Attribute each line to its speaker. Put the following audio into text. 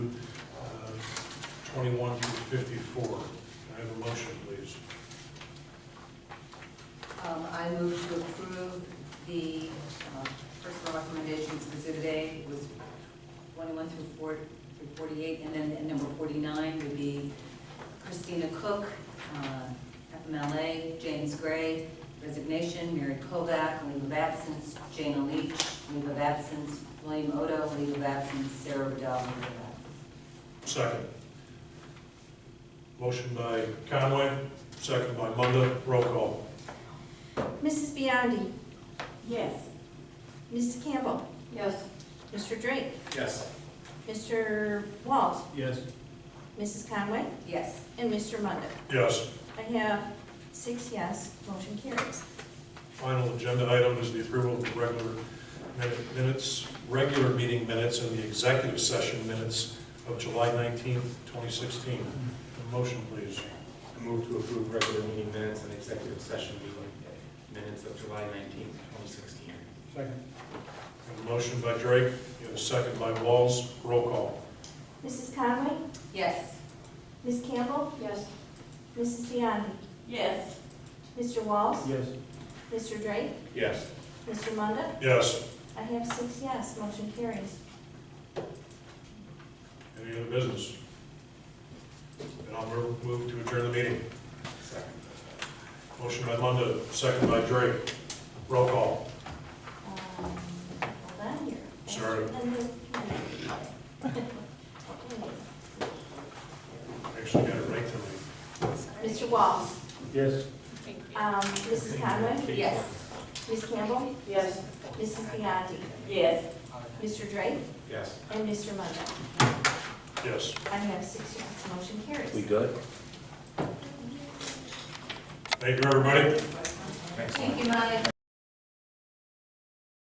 Speaker 1: 21 through 54. Can I have a motion, please?
Speaker 2: Um, I move to approve the uh, personal recommendations exhibit A, it was 21 through 4 through 48, and then at number 49 would be Christina Cook, uh, FMLA, James Gray, resignation, Mary Kovac, leave of absence, Jana Leach, leave of absence, William Odo, leave of absence, Sarah Bedell, leave of absence.
Speaker 1: Second. Motion by Conway, second by Munda. Roll call.
Speaker 3: Mrs. Biondi.
Speaker 2: Yes.
Speaker 3: Mrs. Campbell.
Speaker 2: Yes.
Speaker 3: Mr. Drake.
Speaker 4: Yes.
Speaker 3: Mr. Walls.
Speaker 4: Yes.
Speaker 3: Mrs. Conway.
Speaker 2: Yes.
Speaker 3: And Mr. Munda.
Speaker 1: Yes.
Speaker 3: I have six yes, motion carries.
Speaker 1: Final agenda item is the approval of the regular minute- minutes, regular meeting minutes and the executive session minutes of July 19, 2016. A motion, please.
Speaker 4: I move to approve regular meeting minutes and executive session meeting minutes of July nineteenth, twenty sixteen.
Speaker 1: We have A motion by Drake, we have a second by Walls. Roll call.
Speaker 3: Mrs. Conway.
Speaker 2: Yes.
Speaker 3: Ms. Campbell.
Speaker 2: Yes.
Speaker 3: Mrs. Biondi.
Speaker 2: Yes.
Speaker 3: Mr. Walls.
Speaker 4: Yes.
Speaker 3: Mr. Drake.
Speaker 4: Yes.
Speaker 3: Mr. Munda.
Speaker 1: Yes.
Speaker 3: I have six yes, motion carries.
Speaker 1: Any other business? And I'll move move to adjourn the meeting.
Speaker 4: Second.
Speaker 1: Motion by Munda, second by Drake. Roll call.
Speaker 3: Um, Hold on here.
Speaker 1: Sorry. Actually got it right tonight.
Speaker 3: Mr. Walls.
Speaker 4: Yes.
Speaker 3: Um, Mrs. Conway.
Speaker 2: Yes.
Speaker 3: Ms. Campbell.
Speaker 2: Yes.
Speaker 3: Mrs. Biondi.
Speaker 2: Yes.
Speaker 3: Mr. Drake.
Speaker 4: Yes.
Speaker 3: And Mr. Munda.
Speaker 1: Yes.
Speaker 3: I have six yes, motion carries.
Speaker 5: We good?
Speaker 1: Thank you, everybody.
Speaker 4: Thanks.
Speaker 2: Thank you, Mike.